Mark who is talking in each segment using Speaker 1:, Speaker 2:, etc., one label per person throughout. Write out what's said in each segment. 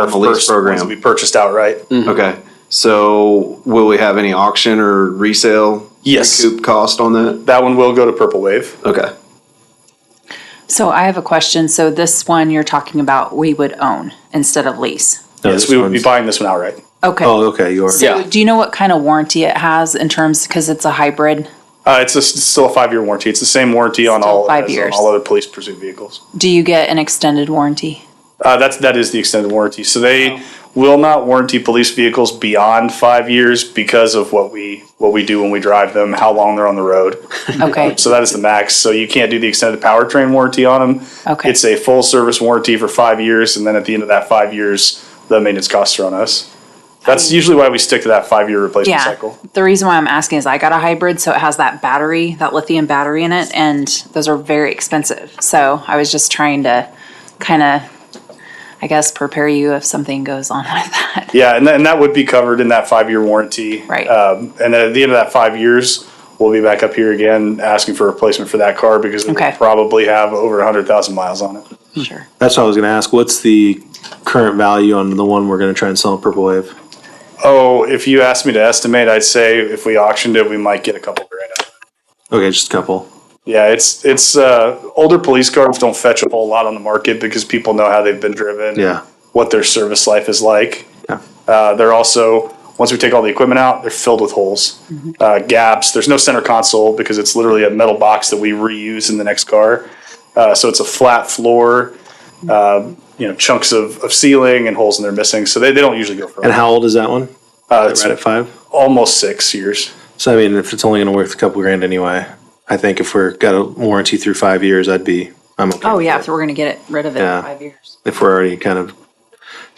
Speaker 1: That's the lease
Speaker 2: first ones
Speaker 1: program.
Speaker 2: we purchased outright.
Speaker 3: Mm.
Speaker 1: Okay, so will we have any auction or resale?
Speaker 2: Yes.
Speaker 1: Recoup cost on that?
Speaker 2: That one will go to Purple Wave.
Speaker 1: Okay.
Speaker 3: So I have a question. So this one you're talking about, we would own instead of lease.
Speaker 2: Yes, we would be buying this one outright.
Speaker 3: Okay.
Speaker 4: Oh, okay, you are.
Speaker 3: So
Speaker 2: yeah.
Speaker 3: do you know what kind of warranty it has in terms, because it's a hybrid?
Speaker 2: Uh, it's, a, it's still a five year warranty. It's the same warranty on
Speaker 3: Still
Speaker 2: all
Speaker 3: five
Speaker 2: as
Speaker 3: years.
Speaker 2: on all other police pursuit vehicles.
Speaker 3: Do you get an extended warranty?
Speaker 2: Uh, that's that is the extended warranty. So they will not warranty police vehicles beyond five years because of what we what we do when we drive them, how long they're on the road.
Speaker 3: Okay.
Speaker 2: So that is the max. So you can't do the extended powertrain warranty on them.
Speaker 3: Okay.
Speaker 2: It's a full service warranty for five years, and then at the end of that five years, the maintenance costs are on us. That's usually why we stick to that five year replacement
Speaker 3: Yeah.
Speaker 2: cycle.
Speaker 3: The reason why I'm asking is I got a hybrid, so it has that battery, that lithium battery in it, and those are very expensive. So I was just trying to kind of, I guess, prepare you if something goes on with that.
Speaker 2: Yeah, and, th- and that would be covered in that five year warranty.
Speaker 3: Right.
Speaker 2: Um, and then at the end of that five years, we'll be back up here again asking for a replacement for that car because it
Speaker 3: Okay.
Speaker 2: will probably have over 100,000 miles on it.
Speaker 3: Sure.
Speaker 4: That's what I was gonna ask. What's the current value on the one we're gonna try and sell in Purple Wave?
Speaker 2: Oh, if you asked me to estimate, I'd say if we auctioned it, we might get a couple grand out of it.
Speaker 4: Okay, just a couple.
Speaker 2: Yeah, it's it's uh, older police cars don't fetch a whole lot on the market because people know how they've been driven,
Speaker 4: Yeah.
Speaker 2: what their service life is like.
Speaker 4: Yeah.
Speaker 2: Uh, they're also once we take all the equipment out, they're filled with holes, uh, gaps. There's no center console because it's literally a metal box that we reuse in the next car. Uh, so it's a flat floor, uh, you know, chunks of, of ceiling and holes in there missing. So they, they don't usually go for
Speaker 4: And how old is that one?
Speaker 2: uh,
Speaker 4: Right
Speaker 2: it's
Speaker 4: at five.
Speaker 2: almost six years.
Speaker 4: So I mean, if it's only gonna worth a couple grand anyway, I think if we're got a warranty through five years, I'd be. I'm okay.
Speaker 3: Oh,
Speaker 4: with
Speaker 3: yeah.
Speaker 4: it.
Speaker 3: If we're going to get it rid of it
Speaker 4: Yeah.
Speaker 3: in five years.
Speaker 4: if we're already kind of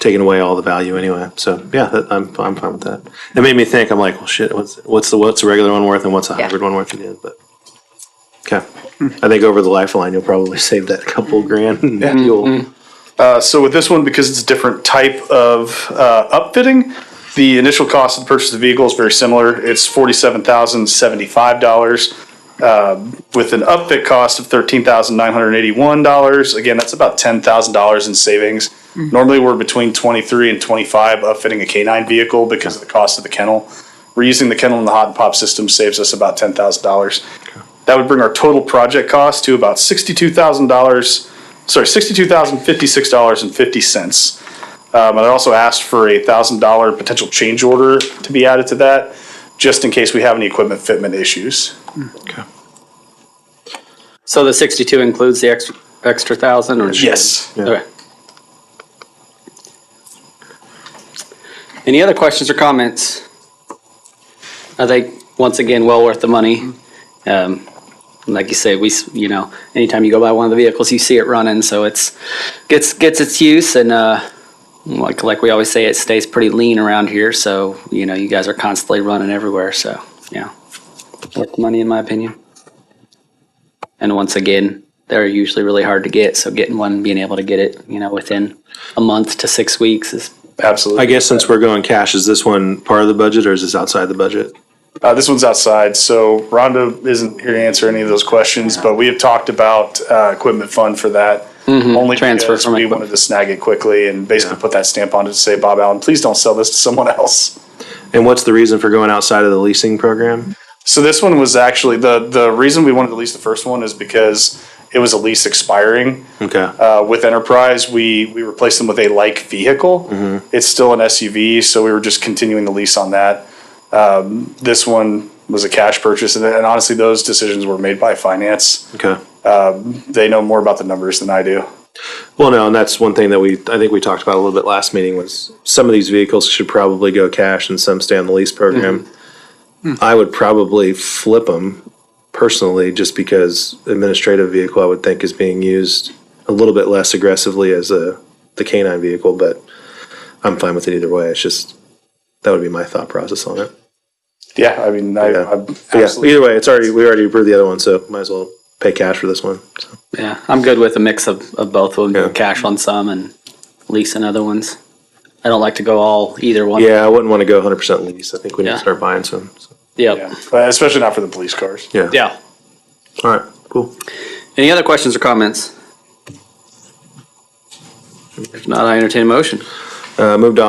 Speaker 4: taking away all the value anyway. So yeah, that, I'm I'm fine with that. It made me think. I'm like, well, shit. What's what's the what's the regular one worth and what's the
Speaker 3: Yeah.
Speaker 4: hybrid one worth at the end? But okay, I think over the lifeline you'll probably save that couple grand in fuel.
Speaker 2: Uh, so with this one, because it's a different type of uh, upfitting, the initial cost of the purchase of the vehicle is very similar. It's forty-seven thousand seventy-five dollars uh, with an upfit cost of thirteen thousand nine hundred eighty-one dollars. Again, that's about ten thousand dollars in savings. Normally, we're between twenty-three and twenty-five upfitting a canine vehicle because of the cost of the kennel. Reusing the kennel and the hot and pop system saves us about ten thousand dollars. That would bring our total project cost to about sixty-two thousand dollars. Sorry, sixty-two thousand fifty-six dollars and fifty cents. Um, and I also asked for a thousand dollar potential change order to be added to that, just in case we have any equipment fitment issues.
Speaker 4: Okay.
Speaker 5: So the sixty-two includes the extra, extra thousand or?
Speaker 2: Yes.
Speaker 4: Yeah.
Speaker 5: Okay. Any other questions or comments? I think, once again, well worth the money. Um, like you say, we, s- you know, anytime you go by one of the vehicles, you see it running, so it's, gets, gets its use and, uh, like, like we always say, it stays pretty lean around here, so, you know, you guys are constantly running everywhere, so, yeah. Worth the money, in my opinion. And once again, they're usually really hard to get. So getting one, being able to get it, you know, within a month to six weeks is
Speaker 2: Absolutely.
Speaker 4: I guess since we're going cash, is this one part of the budget or is this outside the budget?
Speaker 2: Uh, this one's outside, so Rhonda isn't here to answer any of those questions, but we have talked about uh, equipment fund for that. Only
Speaker 5: Mm-hmm. Transfer
Speaker 2: because
Speaker 5: from
Speaker 2: we
Speaker 5: equip-
Speaker 2: wanted to snag it quickly and basically put that stamp on it to say, Bob Allen, please don't sell this to someone else.
Speaker 4: And what's the reason for going outside of the leasing program?
Speaker 2: So this one was actually the the reason we wanted to lease the first one is because it was a lease expiring.
Speaker 4: Okay.
Speaker 2: uh, with Enterprise, we we replaced them with a like vehicle.
Speaker 4: Mm-hmm.
Speaker 2: It's still an SUV, so we were just continuing the lease on that. Um, this one was a cash purchase, and, and honestly, those decisions were made by finance.
Speaker 4: okay.
Speaker 2: They know more about the numbers than I do.
Speaker 4: Well, no, and that's one thing that we I think we talked about a little bit last meeting was some of these vehicles should probably go cash and some stay on the lease program. I would probably flip them personally, just because administrative vehicle I would think is being used a little bit less aggressively as a the canine vehicle, but I'm fine with it either way. It's just that would be my thought process on it.
Speaker 2: Yeah, I mean, I,
Speaker 4: Yeah.
Speaker 2: I'm
Speaker 4: But yeah,
Speaker 2: absolutely.
Speaker 4: either way, it's already we already approved the other one, so might as well pay cash for this one. So.
Speaker 5: yeah. I'm good with a mix of, of both of them,
Speaker 4: Yeah.
Speaker 5: cash on some and leasing other ones. I don't like to go all either one.
Speaker 4: Yeah, I wouldn't want to go 100 percent lease. I think we need
Speaker 5: Yeah.
Speaker 4: to start buying some. So,
Speaker 5: Yep.
Speaker 2: Yeah.
Speaker 5: Yeah.
Speaker 2: But especially not for the police cars.
Speaker 5: Yeah.
Speaker 4: All right. Cool.
Speaker 5: Any other questions or comments? If not, I entertain a motion.
Speaker 4: Uh, moved to